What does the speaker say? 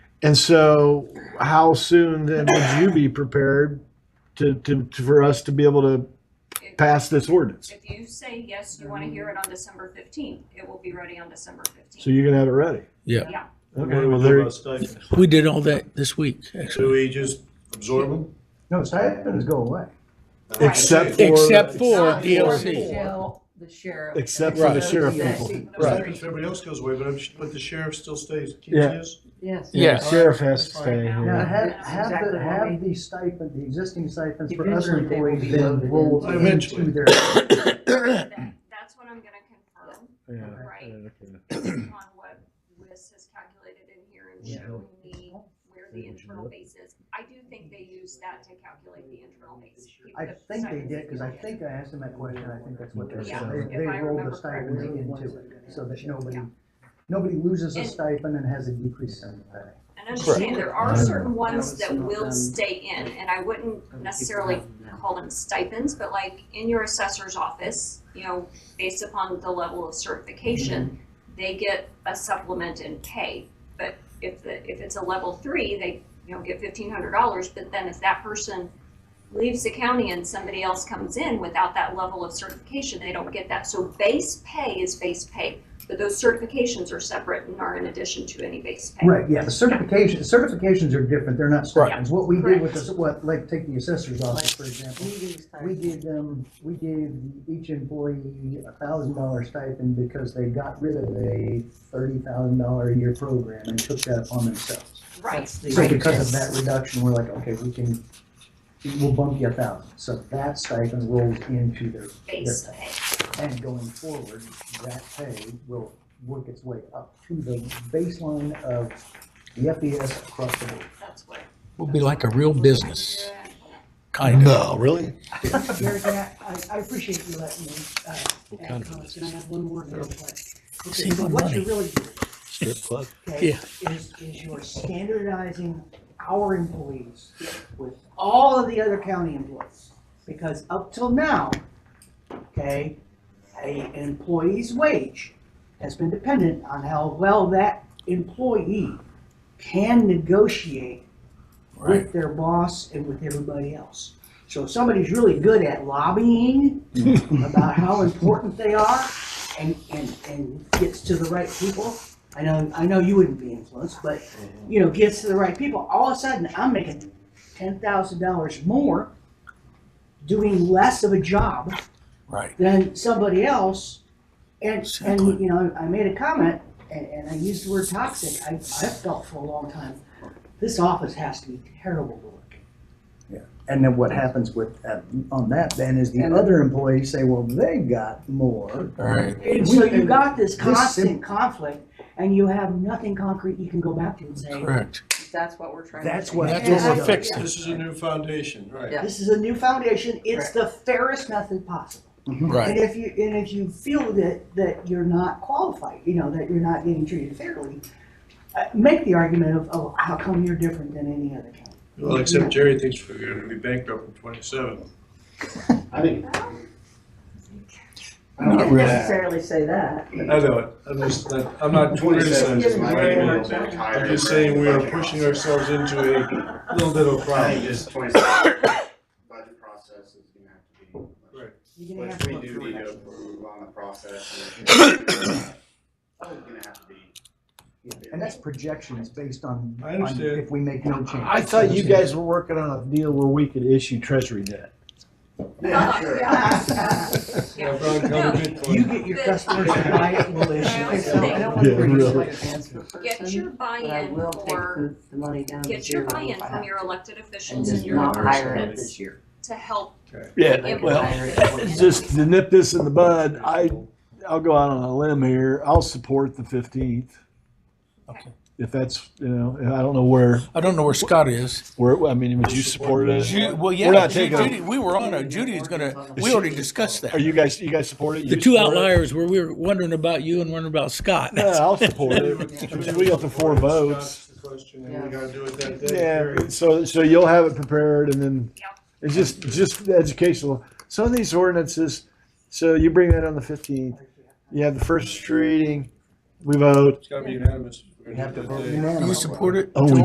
And so, how soon then would you be prepared to, to, to- for us to be able to pass this ordinance? If you say yes, you want to hear it on December fifteenth, it will be ready on December So fifteenth. you're gonna have it ready? Yeah. Yeah, Okay, well, there, we did all that this week, Do actually. we just absorb them? No, stipends go away. except for. Ah, Except for Not DLC. shall The sheriff. Except for the sheriff Yes. people. Right. Everybody else goes away, but I'm, but the sheriff still stays, keeps Yeah. his? Yes. Yeah. Sheriff has to That's fine. stay Now, here. have, That's have exactly the, what I have mean. the stipend, the existing stipends for other Eventually they will employees be then loaded rolled in. Eventually. into their. That- That's what I'm going to confirm Yeah, Right. okay. based on what Liz has calculated in here and Yeah. showing me where the internal base is. I do think they use that to calculate the internal base. People I that think they decide did, because I it's- think I asked them that question, I think that's what they Yeah, said. They, if they I rolled remember the stipends correctly. into it, so that nobody, Yeah. nobody loses a And- stipend and has a decrease in pay. And understand, there are Correct. certain ones that Some of will them- stay in, and I wouldn't necessarily call them stipends, but like in your assessor's office, you know, based upon the level of certification, they get a supplement in pay. But if the, if it's a level three, they, you know, get fifteen hundred dollars, but then if that person leaves the county and somebody else comes in without that level of certification, they don't get that. So base pay is base pay, but those certifications are separate and are in addition to any base pay. Right, yeah, the certification, certifications are different, they're not stipends. What we did with, Correct. the- what, like, take the assessor's office, for example. Meetings time. We gave them, we gave each employee a thousand dollar stipend because they got rid of a thirty thousand dollar a year program and took that upon themselves. Right. That's the- So because of that reduction, we're like, okay, we can, we'll bump you a thousand. So that stipend rolls into their, base their pay. pay. And going forward, that pay will work its way up to the baseline of the FES across the board. That's what. We'll be like a real business, kind of. No, really? Mayor Jack, I, I appreciate you letting me, uh, What kind add of comments, and I have one more real quick. Okay, Save on What money. you're really doing, Strip club? okay, is, is you're standardizing our employees with all of the other county employees. Because up till now, okay, a an employee's wage has been dependent on how well that employee can negotiate with their boss and with everybody else. So if somebody's really good at lobbying about how important they are and, and, and gets to the right people, I know, I know you wouldn't be influenced, but, you know, gets to the right people, all of a sudden, I'm making ten thousand dollars more doing less of a job Right. than somebody else. And, Exactly. and, you know, I made a comment, and, and I used the word toxic, I, I felt for a long time, this office has to be terrible to work in. And then what happens with, uh, on that then is the other employees say, well, they got more. Right. And so you got this This sim- constant conflict, and you have nothing concrete you can go back to and say, Correct. That's what we're trying to. That's do. what. That's what we're fixing. This is a new foundation, right? Yeah. this is a new foundation, it's the fairest method possible. And Right. if you, and if you feel that, that you're not qualified, you know, that you're not getting treated fairly, uh, make the argument of, oh, how come you're different than any other county? Well, except Jerry thinks we're gonna be bankrupt in twenty-seven. I mean, I wouldn't really. necessarily say that. I know it, I'm just, not- I'm not criticizing. Just you, giving right? you a hard time. I'm just saying we are pushing ourselves into a little bit of a I think problem. this twenty-seven budget process is gonna have to be. Right. You're gonna have Which to we look do for need it. to approve on the process. and it's Gonna have to be. And that's projection, it's based on. I understand. on If we make no change. I thought you guys were working on a deal where we could issue treasury debt. Yeah, sure. Yeah, Brian, cover Bitcoin. You get your customers to buy it, we'll issue I it. also think- I don't Yeah, wanna bring really. this like a transfer Get your person, but I buy-in will take for, the, the money down to zero. get your buy-in if I from have your to, elected And officials and just your not hire it representatives this year. to help Yeah, well, implement it. just to nip this in the bud, I, I'll go out on a limb here. I'll support the fifteenth. Okay. If that's, you know, and I don't know where, I don't know where Scott is. where, I mean, would you support Ju- it? Well, We're yeah, not Ju- taking a- Judy, we were on a, Judy's gonna, we already discussed Are that. you guys, you guys support it? The You two support it? outliers were, we were wondering about you and wondering about Scott. Yeah, I'll support it. I mean, We got the four votes. Scott's the question, and we gotta do it that day. Yeah, so, so you'll have it prepared and then Yep. it's just, just educational. Some of these ordinances, so you bring that on the fifteenth, you have the first reading, we vote. It's gotta be unanimous. You have to vote That day. unanimously. You support it? Oh, we